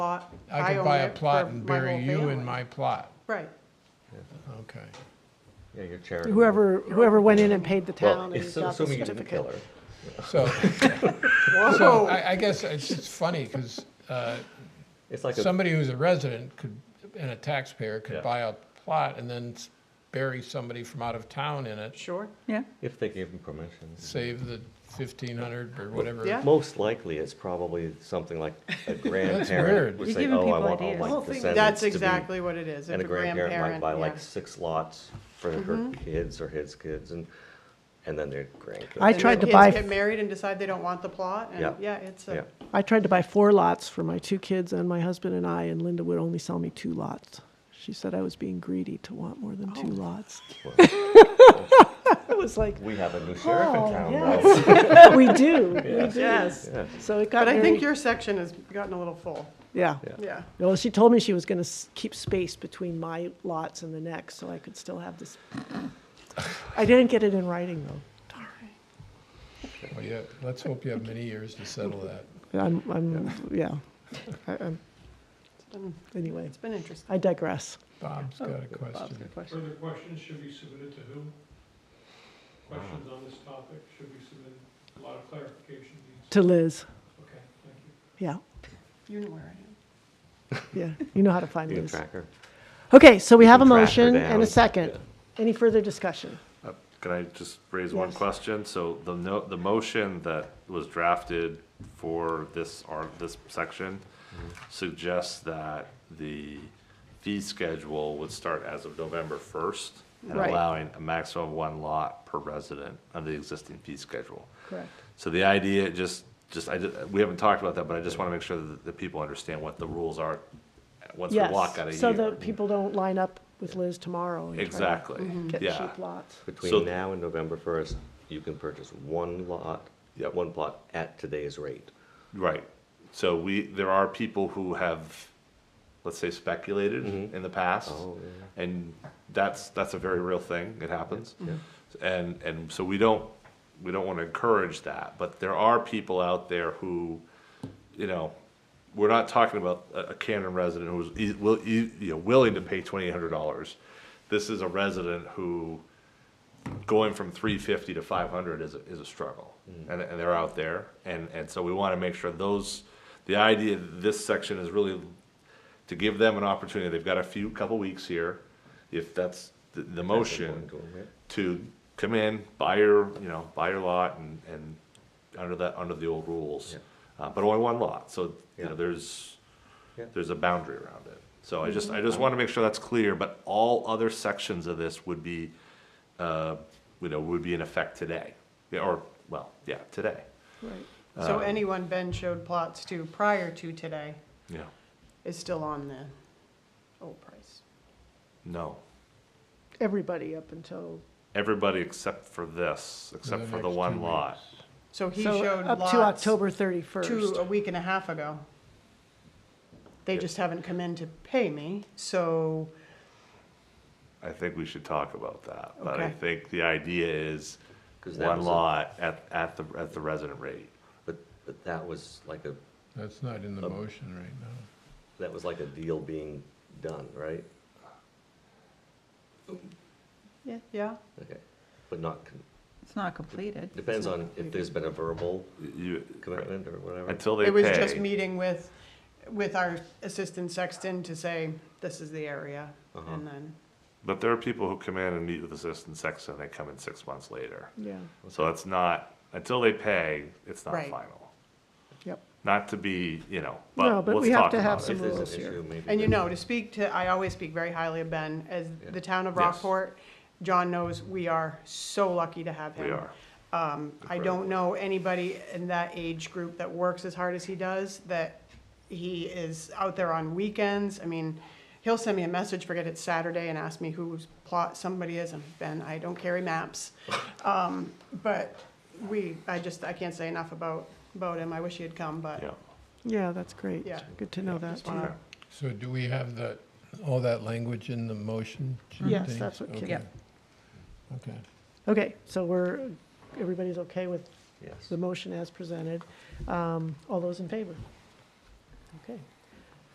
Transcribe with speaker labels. Speaker 1: plot.
Speaker 2: I could
Speaker 1: own
Speaker 2: buy a
Speaker 1: it
Speaker 2: plot
Speaker 1: for
Speaker 2: and
Speaker 1: my
Speaker 2: bury
Speaker 1: whole
Speaker 2: you in
Speaker 1: family.
Speaker 2: my plot.
Speaker 1: Right,
Speaker 2: Okay.
Speaker 3: Yeah, your charitable.
Speaker 4: Whoever, whoever went in and paid the
Speaker 3: Well,
Speaker 4: town and
Speaker 3: it's-
Speaker 4: got the
Speaker 3: assuming you didn't kill
Speaker 4: certificate.
Speaker 3: her.
Speaker 2: So, so
Speaker 1: whoa,
Speaker 2: I, I guess it's just funny because
Speaker 3: It's like a,
Speaker 2: somebody who's a resident could, and a taxpayer
Speaker 3: Yeah.
Speaker 2: could buy a plot and then s- bury somebody from out of town in it,
Speaker 1: sure,
Speaker 5: Yeah,
Speaker 3: if they gave him permission.
Speaker 2: save the fifteen hundred or whatever.
Speaker 1: Yeah.
Speaker 3: Most likely, it's probably something like a
Speaker 2: weird.
Speaker 3: grandparent would
Speaker 5: You're
Speaker 3: say,
Speaker 5: giving
Speaker 3: oh, I
Speaker 5: people
Speaker 3: want all
Speaker 5: ideas.
Speaker 3: my
Speaker 5: The
Speaker 1: whole thing,
Speaker 3: descendants to be.
Speaker 1: that's exactly what it is, if
Speaker 3: And
Speaker 1: a
Speaker 3: a grandparent might
Speaker 1: grandparent,
Speaker 3: buy like
Speaker 1: yeah.
Speaker 3: six lots for her
Speaker 4: Mm-hmm.
Speaker 3: kids or his kids and, and then their grandkids.
Speaker 4: I
Speaker 1: And
Speaker 4: tried
Speaker 1: the
Speaker 4: to buy-
Speaker 1: Kids get married and decide they don't want the plot,
Speaker 3: Yeah.
Speaker 1: and, yeah, it's
Speaker 3: Yeah,
Speaker 1: a,
Speaker 4: I tried to buy four lots for my two kids and my husband and I, and Linda would only sell me two lots. She said I was being greedy to want more than two
Speaker 1: Oh.
Speaker 4: lots. I was like,
Speaker 3: we have a new sheriff
Speaker 4: Oh,
Speaker 3: in town now.
Speaker 4: yes, we do, we do.
Speaker 1: yes.
Speaker 3: Yeah.
Speaker 4: So it got
Speaker 1: But I
Speaker 4: very,
Speaker 1: think your section has gotten a little full,
Speaker 4: yeah.
Speaker 3: Yeah.
Speaker 1: yeah.
Speaker 4: Well, she told me she was gonna s- keep space between my lots and the next, so I could still have this. I didn't get it in writing, though.
Speaker 2: Well, yeah, let's hope you have many years to settle that.
Speaker 4: I'm, I'm, yeah. I- I'm-
Speaker 1: been-
Speaker 4: Anyway,
Speaker 1: It's been interesting.
Speaker 4: I digress.
Speaker 2: Bob's got a
Speaker 5: Bob's
Speaker 2: question.
Speaker 5: good question.
Speaker 6: Further questions should be submitted to who? Questions on this topic should be submitted, a lot of clarification needs,
Speaker 4: To Liz,
Speaker 6: okay, thank you.
Speaker 4: yeah.
Speaker 1: You know where I am.
Speaker 4: Yeah, you know how to find
Speaker 3: You can
Speaker 4: Liz.
Speaker 3: track her.
Speaker 4: Okay, so we
Speaker 3: You
Speaker 4: have a
Speaker 3: can track her
Speaker 4: motion and
Speaker 3: down.
Speaker 4: a second.
Speaker 3: Yeah.
Speaker 4: Any further discussion?
Speaker 7: Uh, Could I just raise one
Speaker 4: Yes.
Speaker 7: question? So the no, the motion that was drafted for this art, this section suggests that the fee schedule would start as of November first and
Speaker 4: Right.
Speaker 7: allowing a maximum of one lot per resident under the existing fee schedule.
Speaker 4: Correct.
Speaker 7: So the idea, just, just, I, ju- we haven't talked about that, but I just want to make sure that the people understand what the rules are once we
Speaker 4: Yes,
Speaker 7: walk out of here.
Speaker 4: so that people don't line up with Liz tomorrow and try to
Speaker 7: Exactly,
Speaker 4: get
Speaker 7: yeah.
Speaker 4: cheap lots.
Speaker 7: So-
Speaker 3: Between now and November first, you can purchase one lot,
Speaker 7: Yep.
Speaker 3: one plot at today's rate.
Speaker 7: Right. So we, there are people who have, let's say, speculated in the past,
Speaker 3: Oh,
Speaker 7: and that's that's a very real thing. It happens,
Speaker 3: Yeah.
Speaker 7: and and so we don't we don't want to encourage that. But there are people out there who, you know, we're not talking about a, a Canton resident who's e- will e- you know, willing to pay twenty eight hundred dollars. This is a resident who going from 350 to 500 is a, is a struggle and, and they're out there and, and so we want to make sure those the idea of this section is really to give them an opportunity they've got a few couple weeks here if that's the, the motion
Speaker 3: important to 'em, yeah.
Speaker 7: to come in buy your you know buy your lot and, and under that under the old rules uh, but only one lot so you
Speaker 3: Yeah.
Speaker 7: know there's
Speaker 3: Yeah. Mm-hmm.
Speaker 7: there's a boundary around it so i just i just want to make sure that's clear but all other sections of this would be uh, you know, would be in effect today, Yeah, or, well, yeah, today,
Speaker 4: Right.
Speaker 1: So
Speaker 3: Uh,
Speaker 1: anyone Ben showed plots to prior to today
Speaker 7: you know,
Speaker 1: is still on the old price.
Speaker 7: no.
Speaker 4: Everybody up until,
Speaker 7: Everybody except for this, except
Speaker 2: the
Speaker 7: for the
Speaker 2: next two
Speaker 7: one lot.
Speaker 1: So he
Speaker 4: so
Speaker 1: showed
Speaker 4: up
Speaker 1: lots.
Speaker 4: to October
Speaker 1: two,
Speaker 4: 31st.
Speaker 1: a week and a half ago. They just haven't come in to pay me, so,
Speaker 7: I think we should talk about that, but I
Speaker 1: Okay.
Speaker 7: think the idea is
Speaker 3: 'Cause that
Speaker 7: one
Speaker 3: was a-
Speaker 7: lot at, at the, at the resident rate.
Speaker 3: But, but that was like a,
Speaker 2: That's not in the motion right now.
Speaker 3: that was like a deal being done, right?
Speaker 1: yeah, yeah,
Speaker 3: Okay, but not, con-
Speaker 5: It's not completed.
Speaker 3: depends on if there's been a verbal
Speaker 7: You,
Speaker 3: commitment or whatever.
Speaker 7: until they
Speaker 1: it was just
Speaker 7: pay,
Speaker 1: meeting with, with our assistant sexton to say, this is the area,
Speaker 3: Uh-huh.
Speaker 1: and then,
Speaker 7: but there are people who come in and meet with assistant sex and they come in six months later.
Speaker 4: Yeah,
Speaker 7: So it's not, until they pay, it's not
Speaker 1: Right.
Speaker 7: final.
Speaker 4: yep.
Speaker 7: Not to be, you know,
Speaker 4: No,
Speaker 7: but
Speaker 4: but
Speaker 7: let's
Speaker 4: we have
Speaker 7: talk
Speaker 4: to have
Speaker 7: about
Speaker 4: some
Speaker 3: If
Speaker 7: it.
Speaker 3: there's an
Speaker 4: rules here.
Speaker 3: issue, maybe.
Speaker 1: and you
Speaker 3: then-
Speaker 1: know, to speak to, I always speak very highly of Ben, as
Speaker 3: Yeah.
Speaker 1: the town of
Speaker 7: Yes.
Speaker 1: Rockport, John knows, we are so lucky to have him.
Speaker 7: We are.
Speaker 1: Um, I don't know anybody in that age group that works as hard as he does, that he is out there on weekends. I mean, he'll send me a message, forget it's Saturday, and ask me whose plot somebody is, and Ben, I don't carry maps. Um, but we, I just, I can't say enough about, about him. I wish he had come, but
Speaker 7: Yeah.
Speaker 4: Yeah, that's great.
Speaker 1: Yeah.
Speaker 4: Good to know that.
Speaker 1: just wanna-
Speaker 7: Okay.
Speaker 2: So do we have the, all that language in the motion? Jim,
Speaker 4: Yes,
Speaker 2: please?
Speaker 4: that's what Kim-
Speaker 2: Okay.
Speaker 5: Yep.
Speaker 2: Okay.
Speaker 4: Okay, so we're, everybody's okay with
Speaker 3: Yes.
Speaker 4: the motion as presented. Um, All those in favor? Okay,